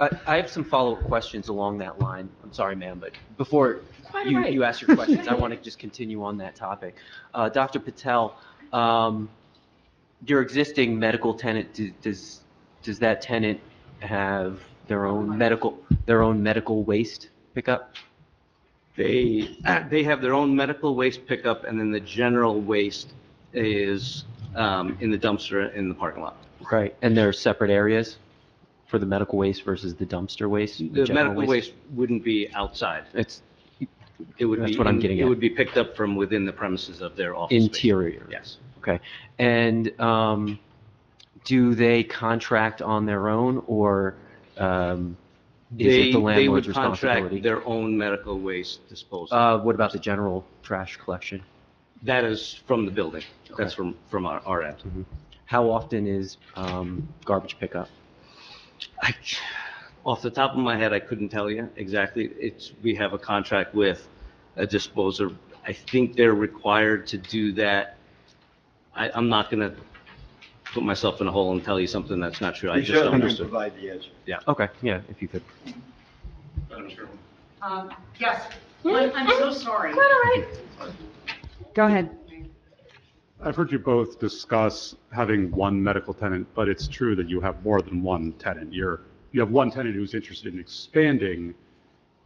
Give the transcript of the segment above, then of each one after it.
I, I have some follow-up questions along that line. I'm sorry, ma'am, but before Quite you, right. you ask your questions, I want to just continue on that topic. Uh, Dr. Patel, um, your existing medical tenant, do- does, does that tenant have their own medical, their own medical waste pickup? They, uh, they have their own medical waste pickup, and then the general waste is um, in the dumpster in the parking lot. Right. And there are separate areas for the medical waste versus the dumpster waste? The general medical waste wouldn't be outside. It's It would be. That's what I'm getting It at. would be picked up from within the premises of their office. space. interior? Yes. Okay. And um, do they contract on their own, or um, is They- it the landlord's They would contract responsibility? their own medical waste disposal. Uh, What about the general trash collection? That is from the building. That's Okay. from, from our, our end. How often is um, garbage pickup? I, off the top of my head, I couldn't tell you exactly. It's, we have a contract with a disposer. I think they're required to do that. I, I'm not gonna put myself in a hole and tell you something that's not true. I We just don't certainly can understand. provide the answer. Okay, yeah, if you could. Um, Yes, Lynn, I'm so sorry. Go ahead. I've heard you both discuss having one medical tenant, but it's true that you have more than one tenant. You're, you have one tenant who's interested in expanding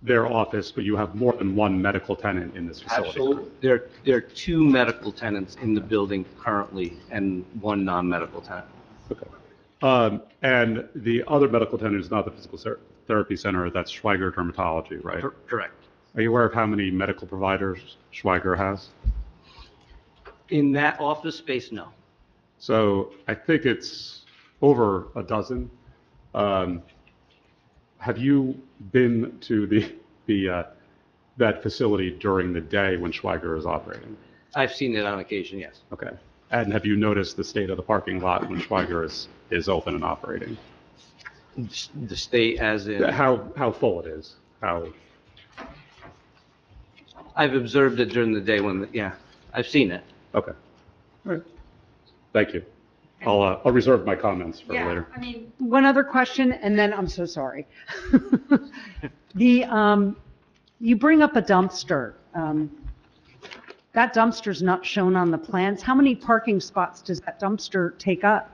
their office, but you have more than one medical tenant in this facility. Absolutely. There, there are two medical tenants in the building currently and one non-medical tenant. Um, and the other medical tenant is not the physical ser- therapy center, that's Schweiger Dermatology, right? Cor- Correct. Are you aware of how many medical providers Schweiger has? In that office space, no. So I think it's over a dozen. Um, Have you been to the, the, uh, that facility during the day when Schweiger is operating? I've seen it on occasion, yes. Okay. And have you noticed the state of the parking lot when Schweiger is, is open and operating? The state as in. How, how full it is? How, I've observed it during the day when, yeah, I've seen it. okay. All right. Thank you. I'll, uh, I'll reserve my comments for Yeah, later. I mean, One other question, and then I'm so sorry. The, um, you bring up a dumpster. Um, That dumpster's not shown on the plans. How many parking spots does that dumpster take up?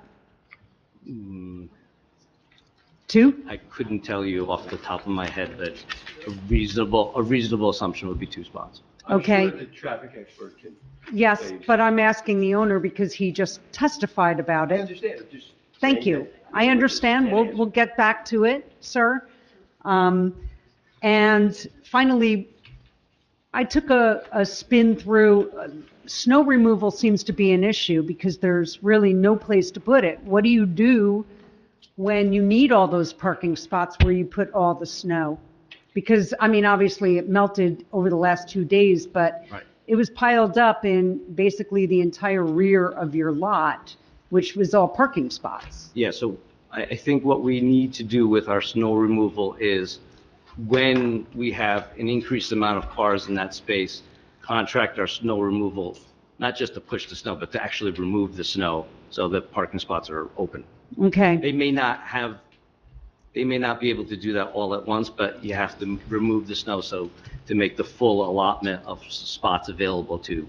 Two? I couldn't tell you off the top of my head that a reasonable, a reasonable assumption would be two spots. I'm sure Okay. The traffic expert can, Yes, but I'm asking the owner because he just testified about I it. understand, I'm just. Thank saying you. that- I understand. We'll, we'll get back to it, sir. Um, And finally, I took a, a spin through, uh, snow removal seems to be an issue because there's really no place to put it. What do you do when you need all those parking spots where you put all the snow? Because, I mean, obviously it melted over the last two days, but Right. it was piled up in basically the entire rear of your lot, which was all parking spots. Yeah, so I, I think what we need to do with our snow removal is when we have an increased amount of cars in that space, contract our snow removal, not just to push the snow, but to actually remove the snow so that parking spots are open. Okay, They may not have, they may not be able to do that all at once, but you have to remove the snow so to make the full allotment of s- spots available to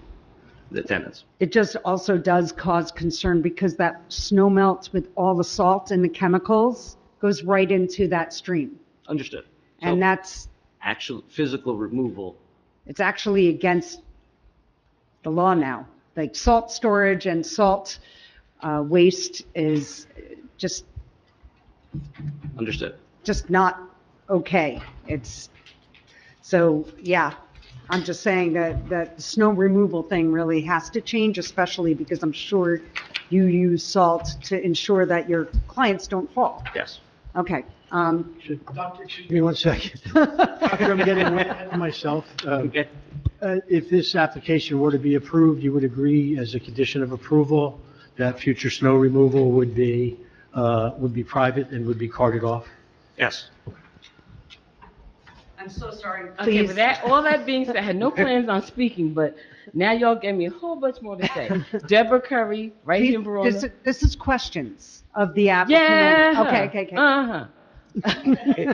the tenants. it just also does cause concern because that snow melts with all the salt and the chemicals goes right into that stream. Understood. And So that's, Actual physical removal, it's actually against the law now. Like salt storage and salt uh, waste is just, understood. just not okay. It's, so, yeah, I'm just saying that, that the snow removal thing really has to change, especially because I'm sure you use salt to ensure that your clients don't fall. Yes. Okay, um, Dr. Chu- Give me one second. After I'm getting ahead of myself, um, Okay. uh, if this application were to be approved, you would agree as a condition of approval that future snow removal would be, uh, would be private and would be carted off? Yes. I'm so sorry. Okay, Please. with that, all that being said, I had no plans on speaking, but now y'all gave me a whole bunch more to say. Deborah Curry, right here in this Verona. this is questions of the applicant. Yeah. Okay, okay, okay. Uh-huh.